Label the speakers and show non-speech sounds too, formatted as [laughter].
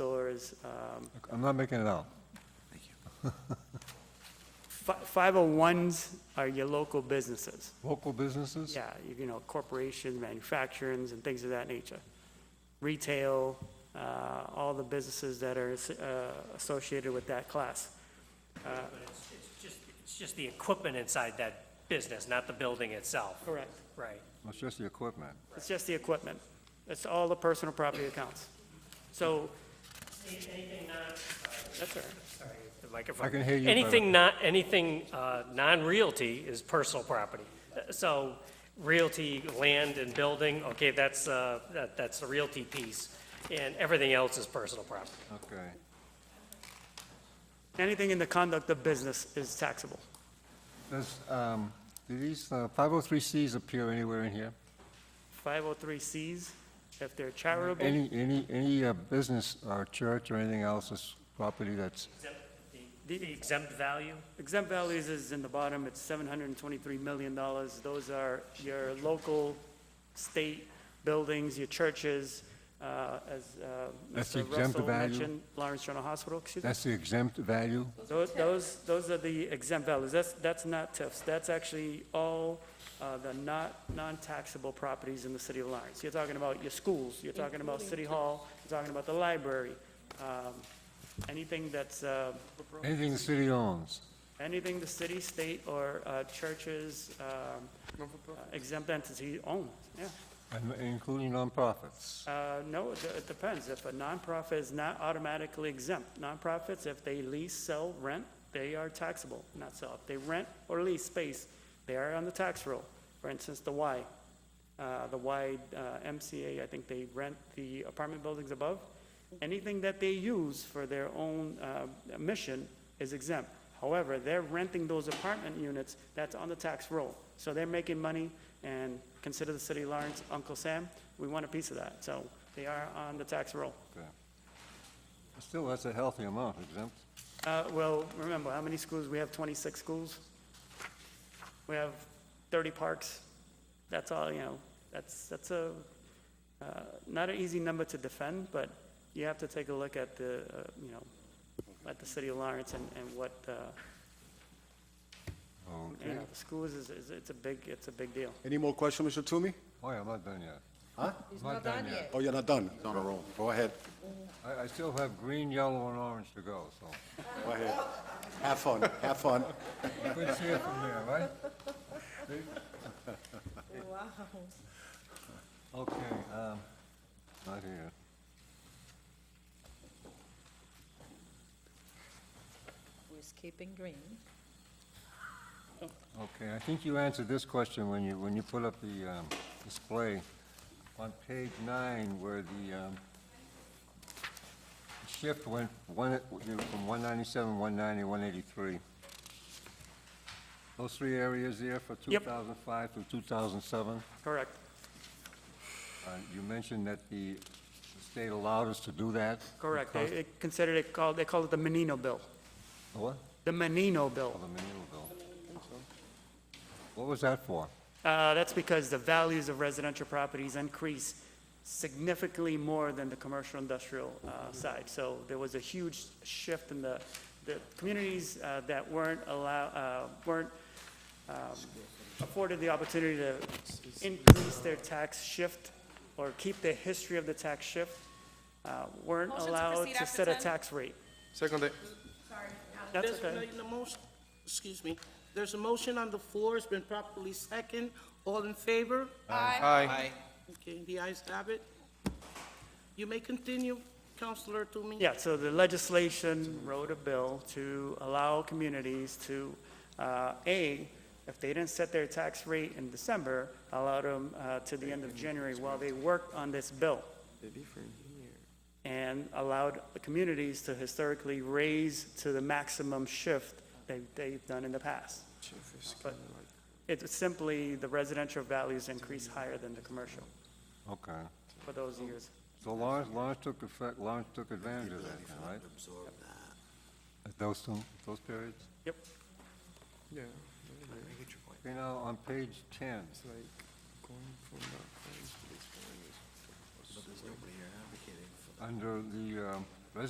Speaker 1: stores, um,
Speaker 2: I'm not making it out.
Speaker 1: fi- 501s are your local businesses.
Speaker 2: Local businesses?
Speaker 1: Yeah, you- you know, corporations, manufacturings, and things of that nature. Retail, uh, all the businesses that are uh, associated with that class.
Speaker 3: But it's, it's just, it's just the equipment inside that business, not the building itself.
Speaker 1: Correct.
Speaker 3: Right.
Speaker 2: It's just the equipment.
Speaker 1: It's just the equipment. It's all the personal property accounts. So,
Speaker 3: Anything not, uh,
Speaker 1: that's all right.
Speaker 3: sorry, the microphone.
Speaker 2: I can hear you better.
Speaker 3: Anything not, anything, uh, non-realty is personal property. Uh, So realty, land and building, okay, that's, uh, that, that's the realty piece. And everything else is personal property.
Speaker 2: Okay.
Speaker 1: Anything in the conduct of business is taxable.
Speaker 2: Does, um, do these uh, 503Cs appear anywhere in here?
Speaker 1: 503Cs, if they're charitable,
Speaker 2: Any, any, any uh, business or church or anything else is property that's,
Speaker 3: Exempt- The the exempt value?
Speaker 1: exempt values is in the bottom, it's $723 million. Those are your local, state buildings, your churches, uh, as uh,
Speaker 2: That's
Speaker 1: Mr.
Speaker 2: exempt
Speaker 1: Russell
Speaker 2: value?
Speaker 1: mentioned, Lawrence General Hospital, excuse me.
Speaker 2: that's the exempt value?
Speaker 1: Those, those, those are the exempt values. That's, that's not TIFs. That's actually all uh, the not, non-taxable properties in the city of Lawrence. You're talking about your schools, you're talking about City Hall, you're talking about the library, um, anything that's, uh,
Speaker 2: Anything the city owns?
Speaker 1: anything the city, state, or uh, churches, um, exempt entity owns, yeah.
Speaker 2: And- Including nonprofits.
Speaker 1: Uh, No, it it depends. If a nonprofit is not automatically exempt, nonprofits, if they lease, sell, rent, they are taxable, not sell. If they rent or lease space, they are on the tax roll. For instance, the Y, uh, the Y uh, MCA, I think they rent the apartment buildings above. Anything that they use for their own uh, mission is exempt. However, they're renting those apartment units, that's on the tax roll. So they're making money, and consider the city of Lawrence, Uncle Sam, we want a piece of that. So they are on the tax roll.
Speaker 2: Okay. Still, that's a healthy amount exempt.
Speaker 1: Uh, Well, remember, how many schools? We have 26 schools. We have 30 parks. That's all, you know, that's, that's a, uh, not an easy number to defend, but you have to take a look at the, uh, you know, at the city of Lawrence and, and what, uh, you
Speaker 2: Okay.
Speaker 1: know, the schools is, is- it's a big, it's a big deal.
Speaker 4: Any more questions, Mr. Toomey?
Speaker 2: Oh, yeah, I'm not done yet.
Speaker 5: He's
Speaker 2: Not
Speaker 5: not
Speaker 2: done
Speaker 5: done yet.
Speaker 4: Oh, you're not done? He's on a roll. Go ahead,
Speaker 2: I, I still have green, yellow, and orange to go, so.
Speaker 4: go ahead. Have fun, have fun.
Speaker 2: Good to see you from there,
Speaker 5: [laughs]
Speaker 2: right?
Speaker 5: Wow.
Speaker 2: Okay, um, not here.
Speaker 5: We're skipping green.
Speaker 2: Okay, I think you answered this question when you, when you put up the um, display on page nine where the um, shift went one, you know, from 197, 190, 183. Those three areas there for
Speaker 1: Yep.
Speaker 2: 2005 through 2007.
Speaker 1: Correct.
Speaker 2: Uh, You mentioned that the the state allowed us to do that.
Speaker 1: Correct. They
Speaker 2: because-
Speaker 1: they consider it called, they call it the Menino Bill,
Speaker 2: What?
Speaker 1: the Menino
Speaker 2: Oh,
Speaker 1: Bill.
Speaker 2: the Manila bill. What was that for?
Speaker 1: Uh, That's because the values of residential properties increase significantly more than the commercial industrial uh, side. So there was a huge shift in the, the communities uh, that weren't allow, uh, weren't um, afforded the opportunity to increase their tax shift or keep the history of the tax shift, uh, weren't
Speaker 6: Motion to
Speaker 1: allowed
Speaker 6: proceed
Speaker 1: to
Speaker 6: after
Speaker 1: set a
Speaker 6: 10.
Speaker 1: tax rate.
Speaker 7: Second,
Speaker 1: That's
Speaker 8: There's
Speaker 1: okay.
Speaker 8: been a motion, excuse me, there's a motion on the floor, it's been properly second, all in favor?
Speaker 7: aye.
Speaker 8: Okay, the ayes have it. You may continue, Counselor Toomey.
Speaker 1: Yeah, so the legislation wrote a bill to allow communities to, uh, A, if they didn't set their tax rate in December, allow them uh, to the end of January while they worked on this bill. And allowed the communities to historically raise to the maximum shift they- they've done in the past. But It's simply the residential values increase higher than the commercial
Speaker 2: Okay.
Speaker 1: for those years.
Speaker 2: So Lawrence, Lawrence took effect, Lawrence took advantage of that, then, right? At those two, those periods?
Speaker 1: Yep.
Speaker 7: Yeah.
Speaker 2: Okay, now, on page ten, under the, um,